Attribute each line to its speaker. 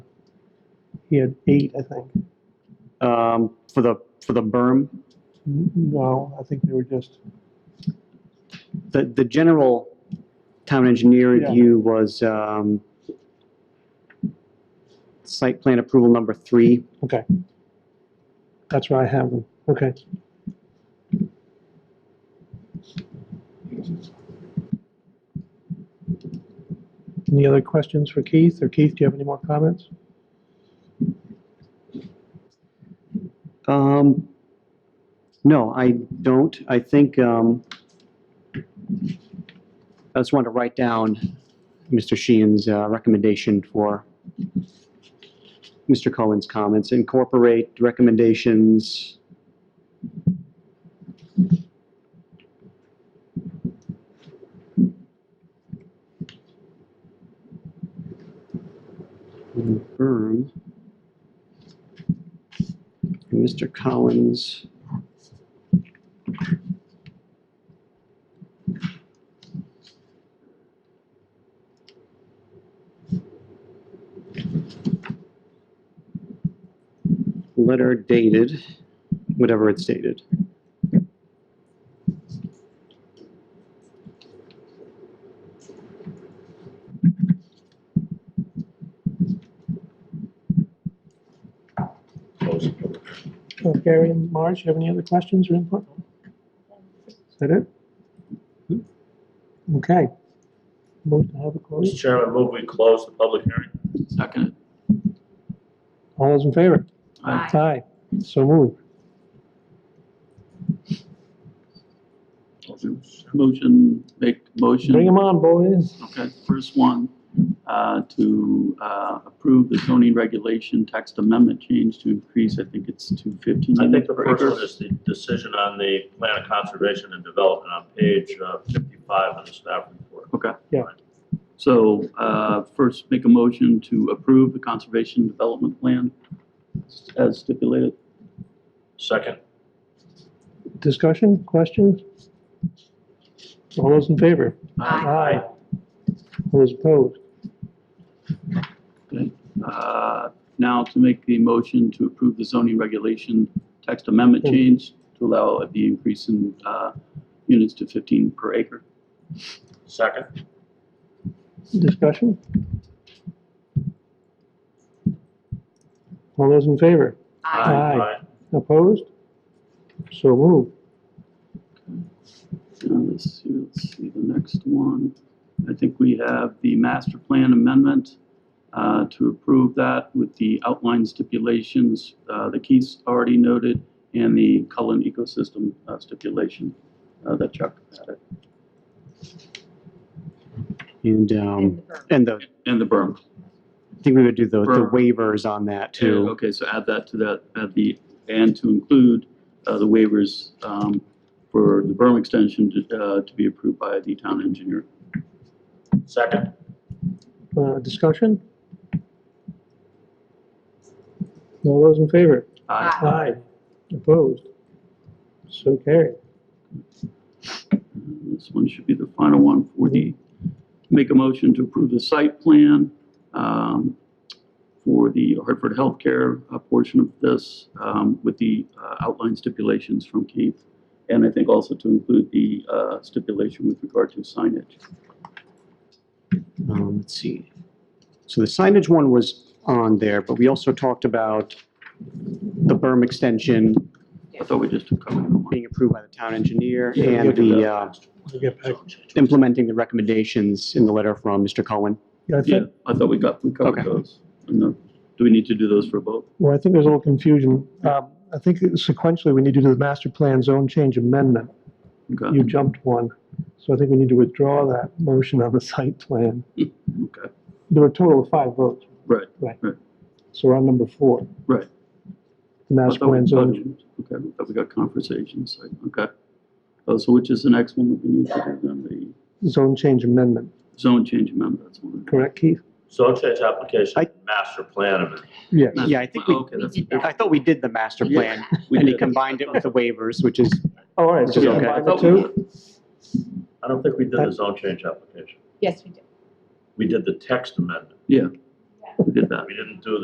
Speaker 1: he had eight, I think.
Speaker 2: um, for the, for the berm.
Speaker 1: No, I think they were just,
Speaker 2: The, the general town engineer
Speaker 1: Yeah.
Speaker 2: review was, um, site plan approval number three.
Speaker 1: okay. That's where I have them, okay. Any other questions for Keith, or Keith, do you have any more comments?
Speaker 2: Um, no, I don't. I think, um, I just wanted to write down Mr. Sheehan's, uh, recommendation for Mr. Cohen's comments, incorporate recommendations. Confirm. Mr. Collins. Letter dated, whatever it's dated.
Speaker 1: Uh, Gary and Marge, you have any other questions or input? Is that it? Okay. Move to have a
Speaker 3: Mr.
Speaker 1: close.
Speaker 3: Chairman, move we close the public hearing.
Speaker 4: Second.
Speaker 1: All those in favor?
Speaker 4: Aye.
Speaker 1: Aye. So moved.
Speaker 4: Motion, make motion.
Speaker 1: Bring them on, boys.
Speaker 4: Okay, first one, uh, to uh, approve the zoning regulation text amendment change to increase, I think it's to 15
Speaker 3: I think
Speaker 4: units
Speaker 3: the
Speaker 4: per
Speaker 3: first
Speaker 4: acre.
Speaker 3: one is the decision on the plan of conservation and development on page uh, 55 of the staff report.
Speaker 4: Okay.
Speaker 1: Yeah.
Speaker 4: So uh, first, make a motion to approve the conservation development plan as stipulated.
Speaker 3: Second,
Speaker 1: Discussion, questions? All those in favor?
Speaker 4: Aye.
Speaker 1: Aye. All those opposed?
Speaker 4: Okay. Uh, Now to make the motion to approve the zoning regulation text amendment
Speaker 1: Hmm.
Speaker 4: change to allow the increase in uh, units to 15 per acre.
Speaker 3: second,
Speaker 1: Discussion? All those in favor?
Speaker 4: Aye.
Speaker 3: aye,
Speaker 1: Opposed? So moved.
Speaker 4: Uh, Let's see, let's see the next one. I think we have the master plan amendment uh, to approve that with the outline stipulations uh, that Keith's already noted and the Cullen ecosystem uh, stipulation uh, that Chuck added.
Speaker 2: And, um, and the,
Speaker 4: And the berm.
Speaker 2: I think we would do the, the
Speaker 4: Berm.
Speaker 2: waivers on that
Speaker 4: Yeah,
Speaker 2: too.
Speaker 4: Okay, so add that to that, add the, and to include uh, the waivers um, for the berm extension to uh, to be approved by the town engineer.
Speaker 3: second,
Speaker 1: Uh, discussion? All those in favor?
Speaker 4: Aye.
Speaker 1: Aye. Opposed? So carried.
Speaker 4: This one should be the final one for the, make a motion to approve the site plan um, for the Hartford Healthcare uh, portion of this um, with the uh, outline stipulations from Keith. And I think also to include the uh, stipulation with regard to signage.
Speaker 2: Um, let's see. So the signage one was on there, but we also talked about the berm extension
Speaker 4: I thought we just took cover of one.
Speaker 2: being approved by the town engineer
Speaker 1: Yeah,
Speaker 2: and
Speaker 4: yeah.
Speaker 2: the, uh,
Speaker 1: We'll get back.
Speaker 2: implementing the recommendations in the letter from Mr. Cohen.
Speaker 1: Yeah, I
Speaker 4: Yeah,
Speaker 1: think,
Speaker 4: I thought we got, we covered
Speaker 2: Okay.
Speaker 4: those. And the- Do we need to do those for both?
Speaker 1: well, I think there's a little confusion. Um, I think sequentially, we need to do the master plan zone change amendment.
Speaker 4: Okay,
Speaker 2: Um,
Speaker 1: You jumped one. So I think we need to withdraw that motion on the site plan.
Speaker 4: okay,
Speaker 1: There were a total of five votes.
Speaker 4: right.
Speaker 1: So we're on number four.
Speaker 4: Right.
Speaker 1: The
Speaker 4: I
Speaker 1: master
Speaker 4: thought we-
Speaker 1: plan
Speaker 4: thought
Speaker 1: zone.
Speaker 4: we- Okay, I thought we got conversations, so, okay. Oh, so which is the next one that we need to do then, the
Speaker 1: zone change amendment,
Speaker 4: zone change amendment, that's one.
Speaker 1: correct, Keith?
Speaker 3: zone change application,
Speaker 2: I-
Speaker 3: master plan amendment.
Speaker 1: Yes.
Speaker 2: Yeah, I think we-
Speaker 4: Okay, that's.
Speaker 2: I thought we did the master
Speaker 4: Yeah,
Speaker 2: plan,
Speaker 4: we
Speaker 2: and he
Speaker 4: did.
Speaker 2: combined it with the waivers, which is,
Speaker 1: Oh, All right, so
Speaker 2: Yeah, okay. Oh,
Speaker 1: combine the
Speaker 3: I thought we
Speaker 1: two?
Speaker 3: did. I don't think we did the zone change application.
Speaker 5: Yes, we do.
Speaker 3: We did the text amendment.
Speaker 4: Yeah, we did that.
Speaker 3: We didn't do